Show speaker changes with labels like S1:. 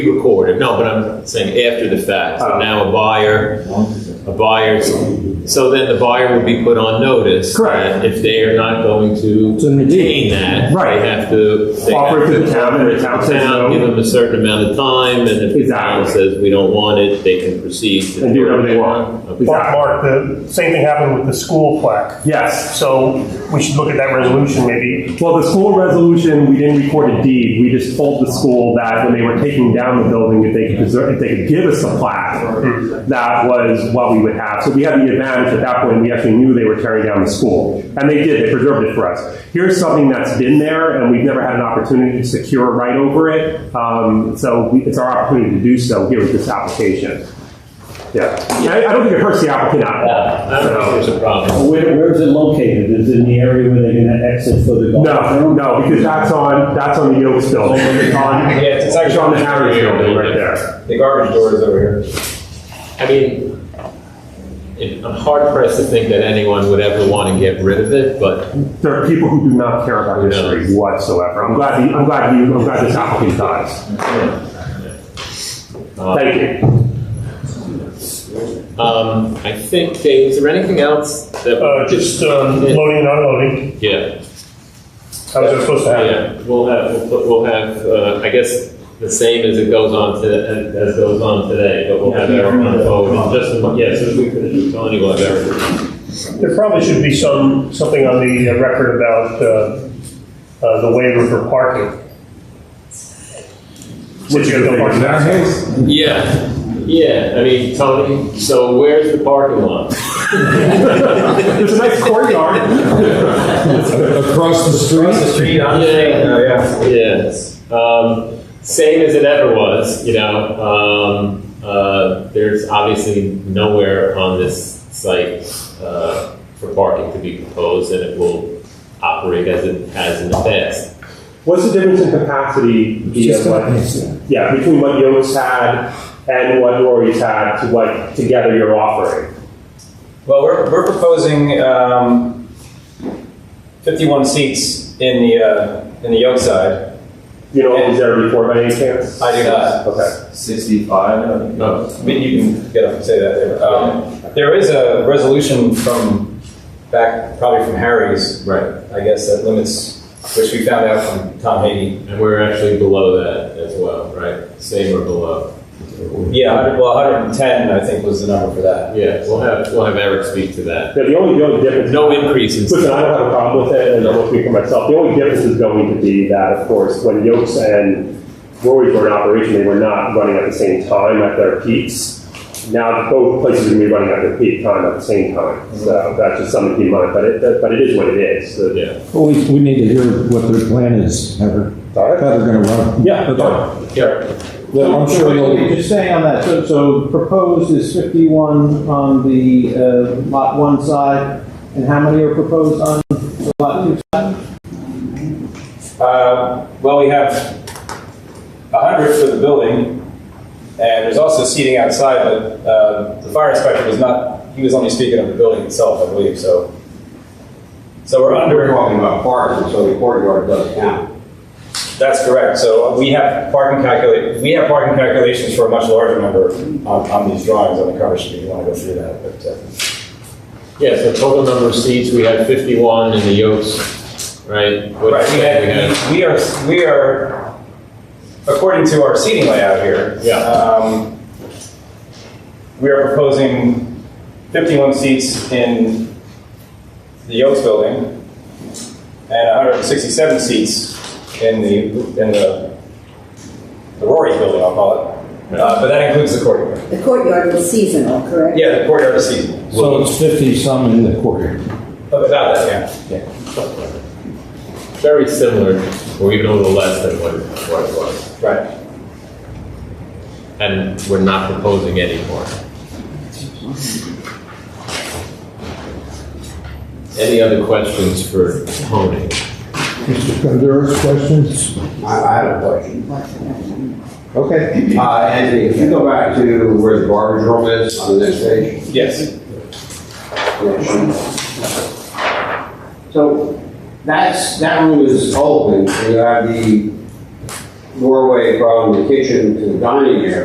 S1: recorded, no, but I'm saying after the fact, So
S2: Oh.
S1: now a buyer, a buyer, so then the buyer would be put on notice.
S2: Correct.
S1: that If they are not going to
S3: To maintain.
S1: retain that.
S2: Right.
S1: They have to. they
S2: Offer
S1: have
S2: it to the town, and the town says no.
S1: Give them a certain amount of time, and if the town
S2: Exactly.
S1: says we don't want it, they can proceed. to-
S2: And do whatever they want.
S1: Okay.
S2: Exactly.
S4: Mark, the same thing happened with the school plaque.
S2: Yes.
S4: So we should look at that resolution maybe.
S2: Well, the school resolution, we didn't record a deed. We just told the school that when they were taking down the building, if they could preserve, if they could give us a plaque, that was what we would have. So we had the advantage at that point. We actually knew they were tearing down the school, and they did. They preserved it for us. Here's something that's been there, and we've never had an opportunity to secure a right over it. Um, so we, it's our opportunity to do so here with this application. Yeah, I, I don't think it hurts the applicant at all.
S1: I don't know if
S2: So-
S1: there's a problem.
S3: Where, where is it located? Is it in the area where they're gonna exit for the golf?
S2: No,
S3: room?
S2: no, because that's on, that's on the Yokes building. Yeah,
S5: it's- it's actually-
S2: on the Harry building right there.
S5: The garbage door is over here.
S1: I mean, it- I'm hard pressed to think that anyone would ever want to get rid of it, but
S2: There are people who do not care about history whatsoever. I'm glad, the- I'm glad you, I'm glad this applicant does.
S1: uh,
S2: Thank you.
S1: Um, I think, Dave, is there anything else that?
S4: Uh, just um, loading and unloading,
S1: Yeah,
S4: how is that supposed to happen?
S1: yeah, we'll have, we'll put- we'll have, uh, I guess, the same as it goes on to, as as goes on today, but we'll have Eric on forward, in just, a mo- yeah, so we finish, Tony will have Eric.
S4: There probably should be some, something on the uh, record about uh, uh, the waiver for parking. Since you have no parking.
S1: Yeah, yeah, I mean, Tony, so where's the parking lot?
S2: There's a nice courtyard.
S6: Across the
S5: Across the
S6: street?
S5: street, on the street,
S1: Yeah.
S5: uh, yeah.
S1: Yes. Um, same as it ever was, you know. Um, uh, there's obviously nowhere on this site uh, for parking to be proposed, and it will operate as it has in the past.
S2: What's the difference in capacity? via
S6: Just
S2: what-
S6: right next to it.
S2: Yeah, between what Yokes had and what Rory's had to what together you're offering.
S5: Well, we're, we're proposing um, 51 seats in the, uh, in the yoke side.
S2: You know, what was there before by any chance?
S5: I do not.
S2: Okay.
S5: 65? No, I mean, you can get up and say that there. Um, There is a resolution from back, probably from Harry's,
S1: Right.
S5: I guess, that limits, which we found out from Tom Hagy.
S1: And we're actually below that as well, right? Same or below.
S5: Yeah, 100 well, 110, I think, was the number for that.
S1: Yeah, we'll have we'll have Eric speak to that.
S2: Yeah, the only, the only difference.
S1: No increase in.
S2: Listen, I don't have a problem with it, and I'm looking for myself. The only difference is going to be that, of course, when Yokes and Rory were in operation, they were not running at the same time at their peaks. Now, both places are going to be running at their peak time at the same time. So that's just something to keep in mind, but it, but it is what it is. So-
S1: Yeah.
S6: Well, we, we need to hear what their plan is, Heather.
S2: All right.
S6: How they're gonna run.
S2: Yeah.
S6: Okay.
S1: Yeah.
S6: Well, I'm sure
S7: Okay,
S6: they'll,
S7: Just staying on that, so, so proposed is fifty-one on the, uh, lot one side, and how many are proposed on the lot two side?
S5: Uh, Well, we have 100 for the building, and there's also seating outside, but uh, the fire inspector was not, he was only speaking of the building itself, I believe, so. So we're
S8: We're
S5: under,
S8: talking about parking, so the courtyard does count.
S5: that's correct, so we have parking calculate, we have parking calculations for a much larger number on, on these drawings on the cover sheet, if you want to go through that, but. uh,
S1: Yeah. So total number of seats we had 51 in the Yokes, right? What
S5: Right,
S1: did
S5: we
S1: we have?
S5: had, we are, we are, according to our seating layout here.
S1: Yeah.
S5: um, We are proposing 51 seats in the Yokes Building and 167 seats in the, in the the Rory Building, I'll call it. Uh, But that includes the courtyard.
S9: The courtyard was seasonal, correct?
S5: Yeah, the courtyard is seating.
S6: so it's fifty some in the quarter.
S5: About that, yeah.
S1: very similar, or even a little less than what it what it was.
S5: Right.
S1: And we're not proposing any more. Any other questions for Tony?
S6: Mr. Conduras, questions?
S8: I, I have a question.
S6: Okay.
S8: Uh, Anthony, if you go back to where the garbage room is on the next page.
S5: Yes.
S8: So that's, that room is open, and you have the doorway from the kitchen to the dining area.